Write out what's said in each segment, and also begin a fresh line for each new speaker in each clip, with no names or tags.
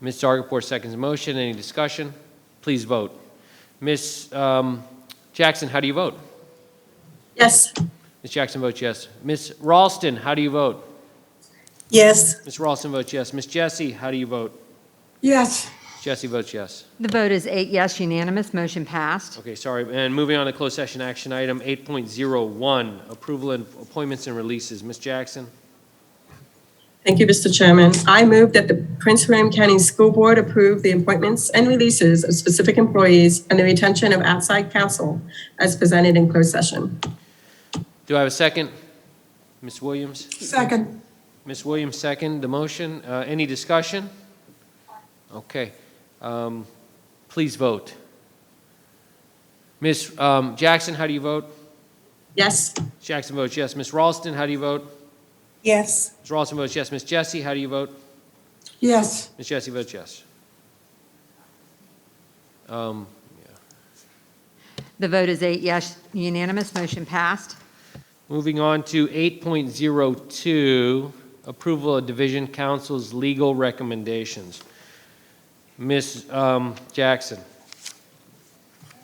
Ms. Zargarpur seconds the motion. Any discussion? Please vote. Ms. um, Jackson, how do you vote?
Yes.
Ms. Jackson votes yes. Ms. Ralston, how do you vote?
Yes.
Ms. Ralston votes yes. Ms. Jesse, how do you vote?
Yes.
Jesse votes yes.
The vote is eight yes unanimous, motion passed.
Okay, sorry. And moving on to closed session action item 8.01, approval and appointments and releases. Ms. Jackson?
Thank you, Mr. Chairman. I move that the Prince William County School Board approve the appointments and releases of specific employees and the retention of outside counsel as presented in closed session.
Do I have a second? Ms. Williams?
Second.
Ms. Williams, second, the motion. Uh, Any discussion? Okay. Um, Please vote. Ms. um, Jackson, how do you vote?
Yes.
Jackson votes yes. Ms. Ralston, how do you vote?
Yes.
Ms. Ralston votes yes. Ms. Jesse, how do you vote?
Yes.
Ms. Jesse votes yes. Um,
The vote is eight yes unanimous, motion passed.
Moving on to 8.02, approval of division council's legal recommendations. Ms. um, Jackson?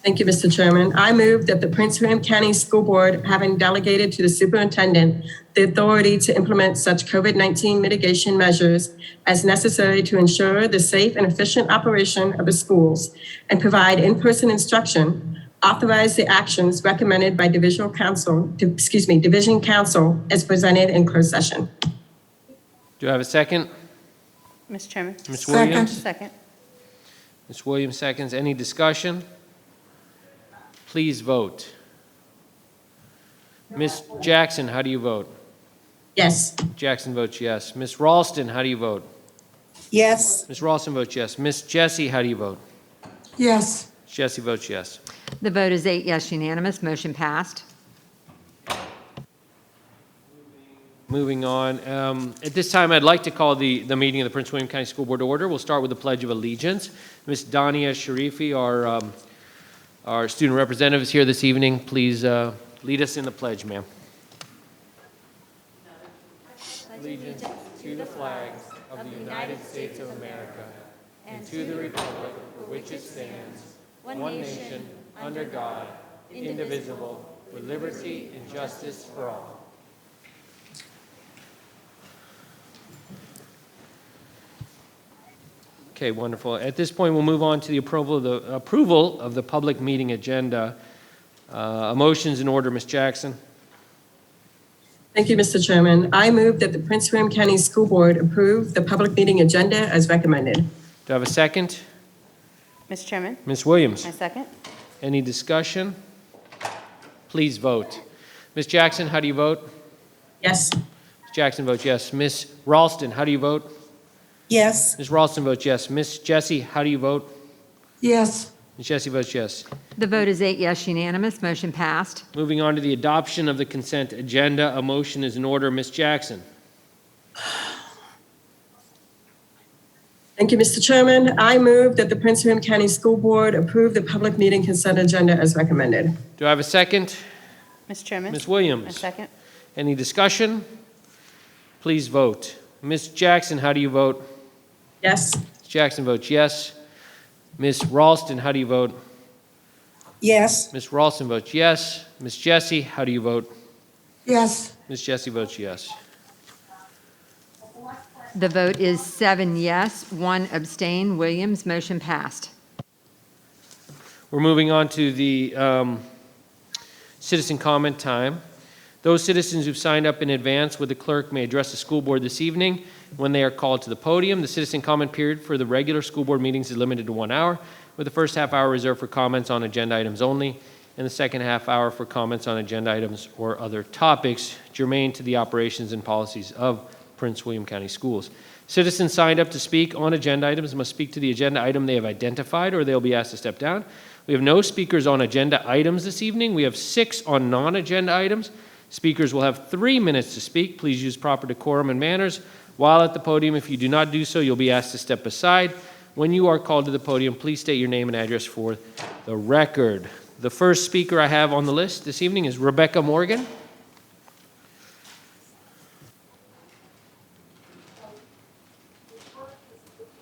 Thank you, Mr. Chairman. I move that the Prince William County School Board, having delegated to the superintendent the authority to implement such COVID-19 mitigation measures as necessary to ensure the safe and efficient operation of the schools and provide in-person instruction, authorize the actions recommended by divisional council, excuse me, division council as presented in closed session.
Do I have a second?
Mr. Chairman.
Ms. Williams?
Second.
Ms. Williams seconds. Any discussion? Please vote. Ms. Jackson, how do you vote?
Yes.
Jackson votes yes. Ms. Ralston, how do you vote?
Yes.
Ms. Ralston votes yes. Ms. Jesse, how do you vote?
Yes.
Jesse votes yes.
The vote is eight yes unanimous, motion passed.
Moving on, um, at this time, I'd like to call the, the meeting of the Prince William County School Board to order. We'll start with the Pledge of Allegiance. Ms. Dania Sharifi, our, um, our student representative is here this evening. Please uh, lead us in the pledge, ma'am. Allegiance to the flag of the United States of America and to the republic for which it stands, one nation, under God, indivisible, with liberty and justice for all. Okay, wonderful. At this point, we'll move on to the approval of the, approval of the public meeting agenda. Uh, A motion's in order, Ms. Jackson.
Thank you, Mr. Chairman. I move that the Prince William County School Board approve the public meeting agenda as recommended.
Do I have a second?
Mr. Chairman.
Ms. Williams?
My second.
Any discussion? Please vote. Ms. Jackson, how do you vote?
Yes.
Ms. Jackson votes yes. Ms. Ralston, how do you vote?
Yes.
Ms. Ralston votes yes. Ms. Jesse, how do you vote?
Yes.
Ms. Jesse votes yes.
The vote is eight yes unanimous, motion passed.
Moving on to the adoption of the consent agenda, a motion is in order, Ms. Jackson.
Thank you, Mr. Chairman. I move that the Prince William County School Board approve the public meeting consent agenda as recommended.
Do I have a second?
Mr. Chairman.
Ms.
My
Williams?
second.
Any discussion? Please vote. Ms. Jackson, how do you vote?
Yes.
Ms. Jackson votes yes. Ms. Ralston, how do you vote?
Yes.
Ms. Ralston votes yes. Ms. Jesse, how do you vote?
Yes.
Ms. Jesse votes yes.
The vote is seven yes, one abstain, Williams, motion passed.
We're moving on to the um, citizen comment time. Those citizens who've signed up in advance with the clerk may address the school board this evening when they are called to the podium. The citizen comment period for the regular school board meetings is limited to one hour, with the first half hour reserved for comments on agenda items only, and the second half hour for comments on agenda items or other topics germane to the operations and policies of Prince William County Schools. Citizens signed up to speak on agenda items must speak to the agenda item they have identified, or they'll be asked to step down. We have no speakers on agenda items this evening. We have six on non-agenda items. Speakers will have three minutes to speak. Please use proper decorum and manners while at the podium. If you do not do so, you'll be asked to step aside. When you are called to the podium, please state your name and address for the record. The first speaker I have on the list this evening is Rebecca Morgan.